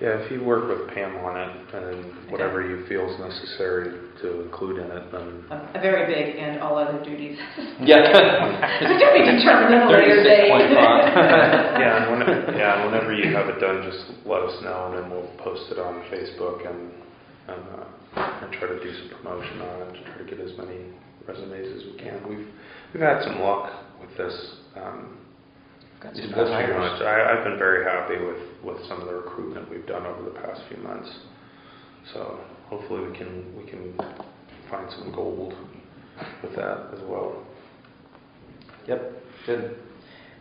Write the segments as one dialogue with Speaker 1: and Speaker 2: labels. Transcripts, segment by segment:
Speaker 1: Yeah, if you work with Pam on it, and then whatever you feel is necessary to include in it, then
Speaker 2: A a very big and all other duties.
Speaker 3: Yeah.
Speaker 2: I don't need to determine at a later date.
Speaker 3: 36.5.
Speaker 1: Yeah, and whenever, yeah, and whenever you have it done, just let us know, and then we'll post it on Facebook and, and, uh, and try to do some promotion on it, to try to get as many resumes as we can. We've, we've had some luck with this, um,
Speaker 3: Got
Speaker 1: these
Speaker 3: some
Speaker 1: past
Speaker 3: good
Speaker 1: few
Speaker 3: hires.
Speaker 1: months. I, I've been very happy with, with some of the recruitment we've done over the past few months. So hopefully we can, we can find some gold with that as well.
Speaker 3: Good.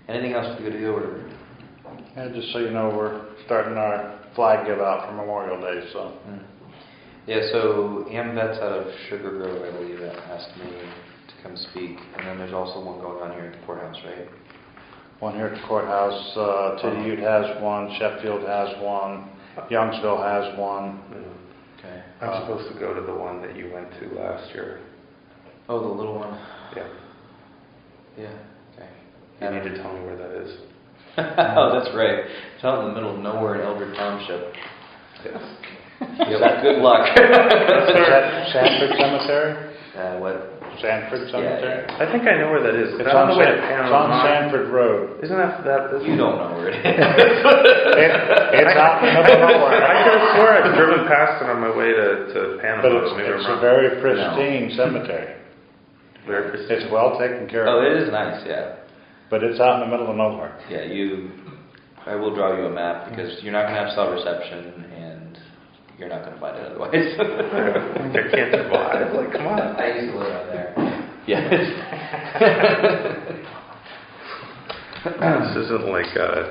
Speaker 3: Anything else we could do or?
Speaker 4: And just so you know, we're starting our flag give out for Memorial Day, so.
Speaker 3: Hmm. Yeah, so AMVET's out of Sugar Grove, I believe, that asked me to come speak. And then there's also one going on here at the courthouse, right?
Speaker 4: One here at the courthouse, uh, Teddy Ute has one, Sheffield has one, Youngsville has one.
Speaker 1: You know,
Speaker 3: Okay.
Speaker 4: Uh,
Speaker 1: I'm supposed to go to the one that you went to last year.
Speaker 3: Oh, the little one.
Speaker 1: Yeah.
Speaker 3: Yeah, okay.
Speaker 1: You need to tell me where that is.
Speaker 3: Oh, that's right. It's out in the middle of nowhere in Elder Township.
Speaker 1: Yes.
Speaker 3: Yep, good luck.
Speaker 4: Sa- Sanford Cemetery?
Speaker 3: Uh, what?
Speaker 4: Sanford Cemetery?
Speaker 1: I think I know where that is.
Speaker 4: It's
Speaker 1: That's on the
Speaker 4: on
Speaker 1: way
Speaker 4: San-
Speaker 1: to
Speaker 4: it's on
Speaker 1: Panama.
Speaker 4: Sanford Road.
Speaker 1: Isn't that that? that's-
Speaker 3: You don't know where it is.
Speaker 4: It- It's out in the
Speaker 1: I
Speaker 4: middle of nowhere.
Speaker 1: could have swore I'd driven past it on my way to, to Panama.
Speaker 4: But it's,
Speaker 1: Maybe I'm
Speaker 4: it's a
Speaker 1: wrong.
Speaker 4: very pristine cemetery.
Speaker 1: Very pristine.
Speaker 4: It's well taken care
Speaker 3: Oh,
Speaker 4: of,
Speaker 3: it is nice, yeah.
Speaker 4: but it's out in the middle of nowhere.
Speaker 3: Yeah, you, I will draw you a map because you're not gonna have cell reception and you're not gonna find it otherwise.
Speaker 1: I can't survive. Like, come on.
Speaker 3: I used to live out there. Yes.
Speaker 1: This isn't like a,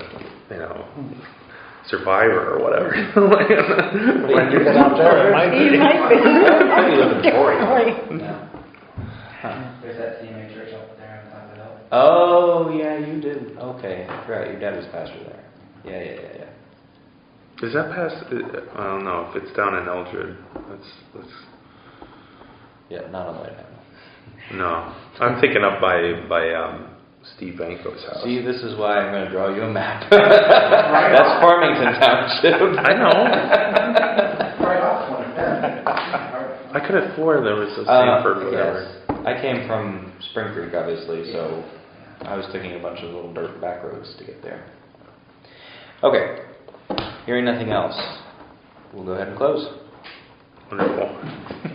Speaker 1: you know, survivor or whatever. When
Speaker 4: You get out there, it might be.
Speaker 5: You might be.
Speaker 3: I'd be living in Torrey.
Speaker 5: Sorry.
Speaker 3: No.
Speaker 6: There's that CMA church up there on top of the hill.
Speaker 3: Oh, yeah, you did. Okay, right, your dad was pastor there. Yeah, yeah, yeah, yeah.
Speaker 1: Is that past, uh, I don't know, if it's down in Eldred, that's, that's,
Speaker 3: Yeah, not on the way down.
Speaker 1: no. I'm thinking up by, by, um, Steve Banko's house.
Speaker 3: See, this is why I'm gonna draw you a map. That's Farmington Township.
Speaker 1: I know.
Speaker 6: Right off one of them. Or-
Speaker 1: I could have swore there was a
Speaker 3: Uh,
Speaker 1: Sanford, whatever.
Speaker 3: yes. I came from Spring Creek, obviously, so I was taking a bunch of little dirt back roads to get there. Okay, hearing nothing else, we'll go ahead and close.
Speaker 1: Wonderful.